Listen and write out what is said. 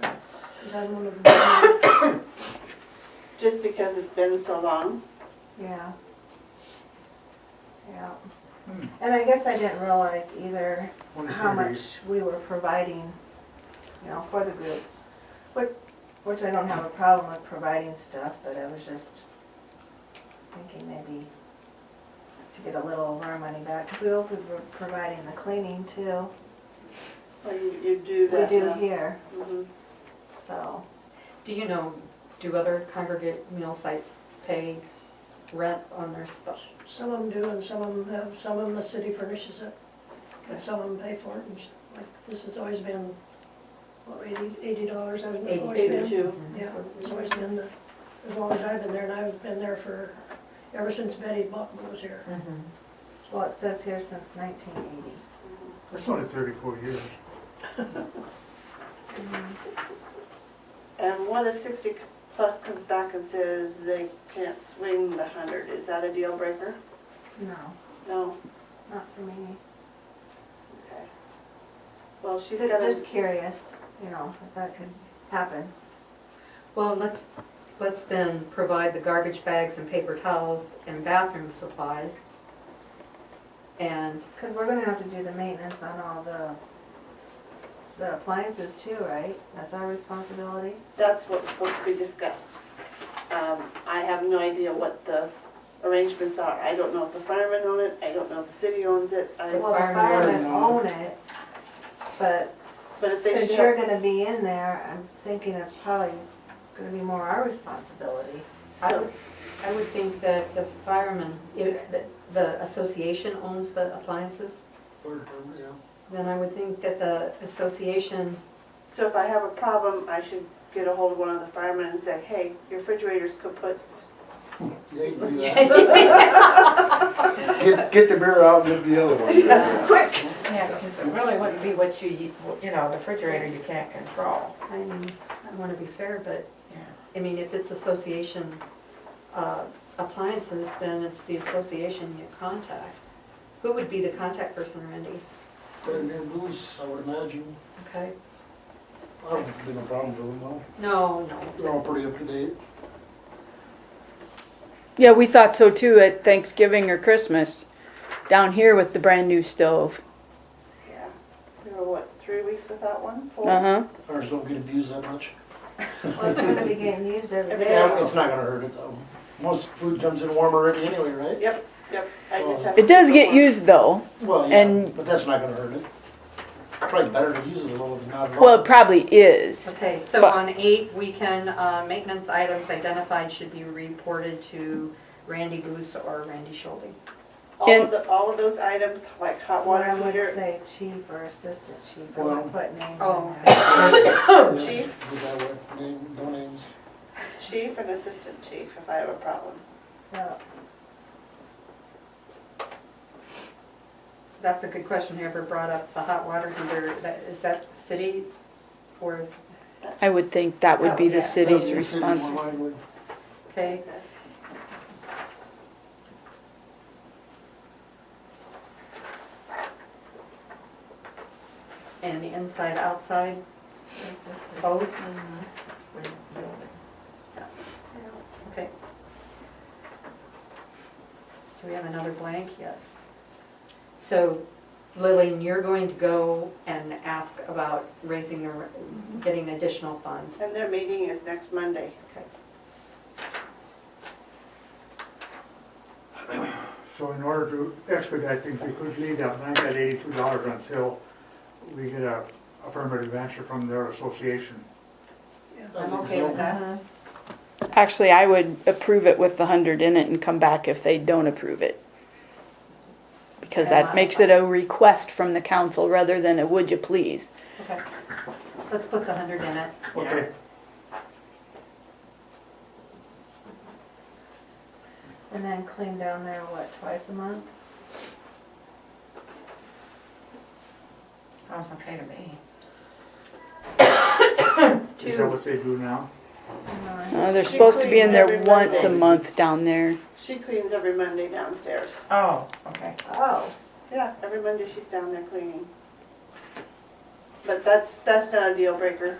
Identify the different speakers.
Speaker 1: Cause I don't wanna,
Speaker 2: just because it's been so long.
Speaker 3: Yeah. Yeah. And I guess I didn't realize either how much we were providing, you know, for the group. Which, which I don't have a problem with providing stuff, but I was just thinking maybe to get a little of our money back, because we will be providing the cleaning too.
Speaker 2: Well, you, you do
Speaker 3: We
Speaker 2: that.
Speaker 3: do
Speaker 2: now.
Speaker 3: here,
Speaker 2: Mhm.
Speaker 3: so.
Speaker 4: Do you know, do other congregate meal sites pay rent on their special?
Speaker 1: some of them do and some of them have, some of them the city furnishes it. And some of them pay for it and, s- like, this has always been, what, eighty, eighty dollars, always been. always been-
Speaker 2: Eighty-two.
Speaker 1: Yeah, it's always been the, as long as I've been there and I've been there for, ever since Betty Buckman was here.
Speaker 3: Well, it says here since nineteen eighty.
Speaker 5: That's only thirty-four years.
Speaker 2: Mm-hmm. And what if sixty plus comes back and says they can't swing the hundred? Is that a deal breaker?
Speaker 3: No,
Speaker 2: No?
Speaker 3: not for me.
Speaker 2: Okay. Well, she's
Speaker 3: Ju-
Speaker 2: gonna,
Speaker 3: Just curious, you know, if that could happen.
Speaker 4: Well, let's, let's then provide the garbage bags and paper towels and bathroom supplies. And,
Speaker 3: Because we're gonna have to do the maintenance on all the, the appliances too, right? That's our responsibility.
Speaker 2: that's what's supposed to be discussed. Um, I have no idea what the arrangements are. I don't know if the firemen own it, I don't know if the city owns it, I,
Speaker 3: Well, the
Speaker 4: firemen
Speaker 3: firemen
Speaker 4: own
Speaker 3: own it, but
Speaker 2: but if they should.
Speaker 3: since you're gonna be in there, I'm thinking it's probably gonna be more our responsibility.
Speaker 4: I would, I would think that the firemen, if the- the association owns the appliances, then I would think that the association,
Speaker 2: So if I have a problem, I should get a hold of one of the firemen and say, hey, your refrigerator's kaputs.
Speaker 5: Get, get the beer out and get the other one.
Speaker 2: Quick!
Speaker 6: Yeah, because it really wouldn't be what you, you know, the refrigerator you can't control.
Speaker 4: I mean, I want to be fair, but, I mean, if it's association uh, appliances, then it's the association you contact. Who would be the contact person, Randy?
Speaker 7: They're near Booth's, I would imagine.
Speaker 4: Okay?
Speaker 7: I don't think there'd be no problems with them, though.
Speaker 4: No, no.
Speaker 7: They're all pretty up to date.
Speaker 8: Yeah, we thought so too at Thanksgiving or Christmas, down here with the brand new stove.
Speaker 2: Yeah, we were what, three weeks without one? Four?
Speaker 8: Uh-huh.
Speaker 7: Ours don't get abused that much.
Speaker 3: Well, it's gonna be getting used every
Speaker 2: Every
Speaker 3: day.
Speaker 7: Yeah, it's not gonna hurt it, though. Most food comes in warm already anyway, right?
Speaker 2: Yep, yep, I just have.
Speaker 8: It does get used though.
Speaker 7: Well, yeah,
Speaker 8: And-
Speaker 7: but that's not gonna hurt it. Probably better to use it a little than not at all.
Speaker 8: Well, it probably is.
Speaker 4: Okay, so
Speaker 8: But-
Speaker 4: on eight, we can, uh, maintenance items identified should be reported to Randy Booth or Randy Schulte.
Speaker 2: All of
Speaker 8: And-
Speaker 2: the, all of those items, like hot
Speaker 3: What
Speaker 2: water
Speaker 3: I would
Speaker 2: heater,
Speaker 3: say chief or assistant chief, I
Speaker 7: Well-
Speaker 3: would put names
Speaker 4: Oh.
Speaker 3: in there.
Speaker 7: Yeah,
Speaker 2: chief.
Speaker 7: we got what, name- no names.
Speaker 2: chief and assistant chief, if I have a problem.
Speaker 3: Yeah.
Speaker 4: That's a good question, whoever brought up the hot water heater, that, is that city or is,
Speaker 8: I would think that would be the city's
Speaker 7: Yeah, the city, more
Speaker 8: responsibility.
Speaker 7: likely.
Speaker 4: okay? And inside, outside,
Speaker 3: It's just-
Speaker 4: both?
Speaker 3: yeah.
Speaker 4: Okay. Do we have another blank? Yes. So Lillian, you're going to go and ask about raising, the getting additional funds.
Speaker 2: And their meeting is next Monday.
Speaker 4: Okay.
Speaker 5: So in order to expedite things, we could leave that blank at eighty-two dollars until we get a affirmative answer from their association.
Speaker 7: I
Speaker 4: I'm
Speaker 7: think
Speaker 4: okay with
Speaker 7: so.
Speaker 4: that.
Speaker 8: Actually, I would approve it with the hundred in it and come back if they don't approve it. Because that makes it a request from the council rather than a would you please.
Speaker 4: Okay. Let's put the hundred in it.
Speaker 5: Okay,
Speaker 3: And then clean down there, what, twice a month?
Speaker 6: Sounds okay to me.
Speaker 5: is that what they do now?
Speaker 8: Uh, they're supposed to be in there once a month down there.
Speaker 2: She cleans every Monday downstairs.
Speaker 6: Oh, okay.
Speaker 3: Oh,
Speaker 2: Yeah, every Monday she's down there cleaning. But that's, that's not a deal breaker.